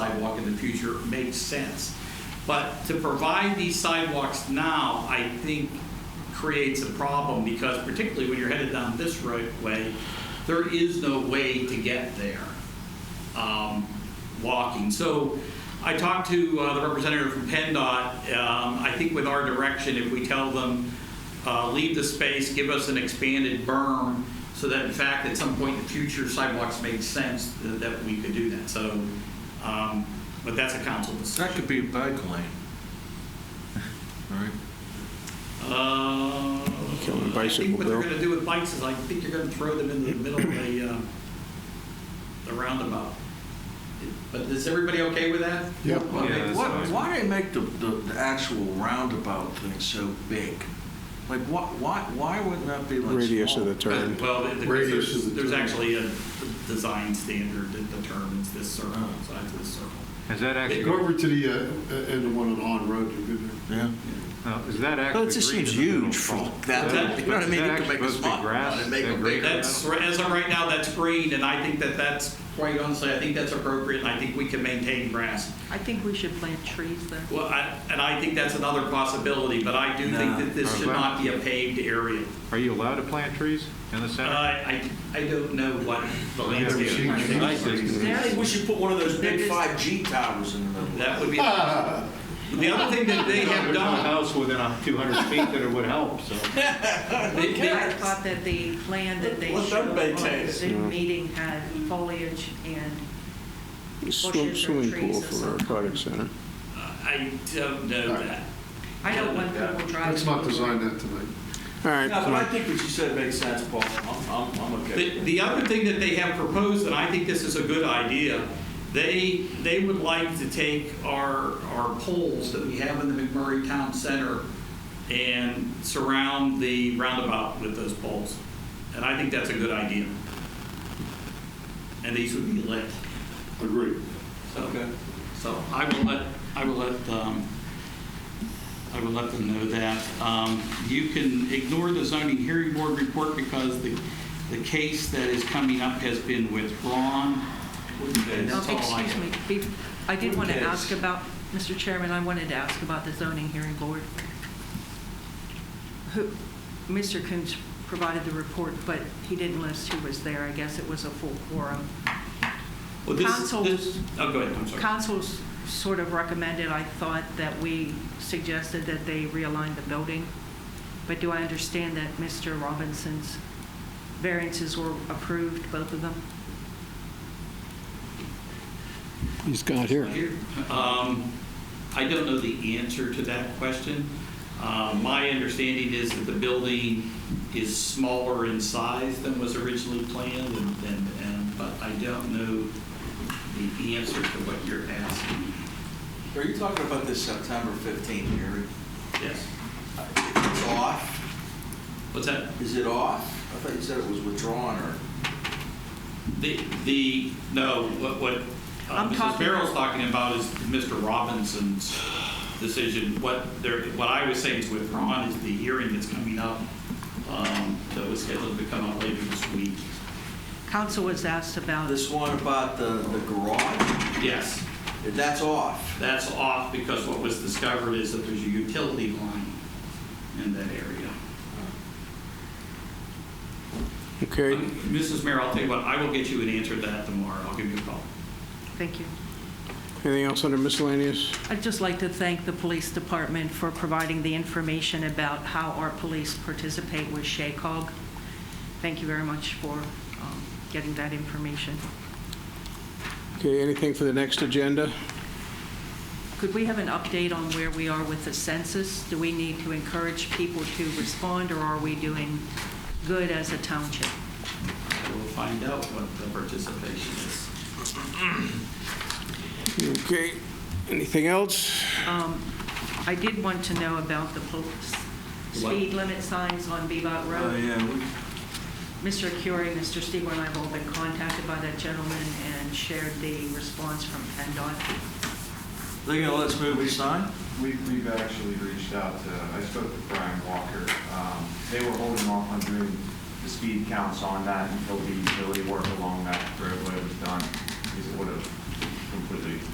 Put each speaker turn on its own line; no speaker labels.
in the future makes sense. But to provide these sidewalks now, I think creates a problem because particularly when you're headed down this right way, there is no way to get there um, walking. So I talked to uh, the representative from PennDOT. Um, I think with our direction, if we tell them, uh, leave the space, give us an expanded berm, so that in fact, at some point in the future, sidewalks make sense, th- that we could do that. So, um, but that's a council
That
decision.
could be a bike lane. All right.
Uh,
Killing
I think
bicycle,
what they're
Bill.
gonna do with bikes is I think you're gonna throw them in the middle of the, um, the roundabout. But is everybody okay with that?
Yep.
Why
Yeah,
they-
that's
What,
fine.
why they make the, the, the actual roundabout thing so big? Like, what, why, why wouldn't that be like
Radius of
small?
the turn.
Uh, Well, the- the-
Radius
there's,
is the
there's
term.
actually a design standard that determines this circle,
Oh.
size of this circle.
Is that actually,
Go over to the uh, uh, end of one on On Road, you're good there.
Yeah.
no, is that actually?
But it just
green
seems
in the middle?
huge for
Is
that,
that-
you know what I
is that
mean? You could
actually
make a
supposed to be
spot
grass?
and
Is
make a
that
big.
green?
That's, as of right now, that's green, and I think that that's, quite honestly, I think that's appropriate, and I think we can maintain grass.
I think we should plant trees there.
Well, I- and I think that's another possibility, but I do think
No.
that this should not be a paved area.
Are you allowed to plant trees in the
Uh,
center?
I, I don't know what the landscape.
Yeah,
plan
we
is.
I think we should put one of those
There
big
is-
5G towers in the middle.
That would be, the other thing that they have done,
house within a 200 feet that it would help, so.
they- they-
I thought that the plan that they
Let them
showed on
maintain it.
the meeting had foliage and
Swim- Swimming pool for our aquatic center.
I don't know
Alright.
that.
I don't want people driving.
Let's not design that tonight.
All right,
No,
come
but I
on.
think what you said makes sense, Paul. I'm, I'm, I'm
The,
okay.
the other thing that they have proposed, and I think this is a good idea, they, they would like to take our, our poles that we have in the McMurray Town Center and surround the roundabout with those poles. And I think that's a good idea. And these would be lit.
Agree.
So, so I will let, I will let, um, I will let them know that. Um, You can ignore the zoning hearing board report because the, the case that is coming up has been withdrawn. And
No,
that's all I
excuse me,
have.
Be- I did want to
Yes.
ask about, Mr. Chairman, I wanted to ask about the zoning hearing board. Who, Mr. Coombs provided the report, but he didn't list who was there, I guess it was a full quorum.
Well, this-
Council-
this- Oh, go ahead, I'm sorry.
Council's sort of recommended, I thought, that we suggested that they realign the building. But do I understand that Mr. Robinson's variances were approved, both of them?
He's got here.
Um, I don't know the answer to that question. Uh, My understanding is that the building is smaller in size than was originally planned, and, and- and, but I don't know the answer to what you're asking.
Are you talking about this September 15th hearing?
Yes.
It's off?
What's that?
Is it off? I thought you said it was withdrawn or.
The, the, no, what, what uh,
I'm
Mrs.
talking-
Barrow's talking about is Mr. Robinson's decision. What there, what I was saying is withdrawn is the hearing that's coming up, um, that was scheduled to come up later this week.
Council was asked about,
This one about the, the garage,
Yes,
that's off.
that's off because what was discovered is that there's a utility line in that area.
Okay,
Um, Mrs. Mayor, I'll tell you what, I will get you an answer to that tomorrow. I'll give you a call.
thank you.
anything else under miscellaneous?
I'd just like to thank the police department for providing the information about how our police participate with SHACOG. Thank you very much for um, getting that information.
Okay, anything for the next agenda?
Could we have an update on where we are with the census? Do we need to encourage people to respond, or are we doing good as a township?
We'll find out what the participation is.
Okay, anything else?
Um, I did want to know about the po- speed limit signs on Bebop
Oh,
Road.
yeah. we-
Mr. Curie, Mr. Stigler, and I have all been contacted by that gentleman and shared the response from PennDOT.
They're gonna let us move each sign?
We, we've actually reached out to, I spoke to Brian Walker. Um, They were holding off on doing the speed counts on that until the utility work along that roadway was done, because it would have completely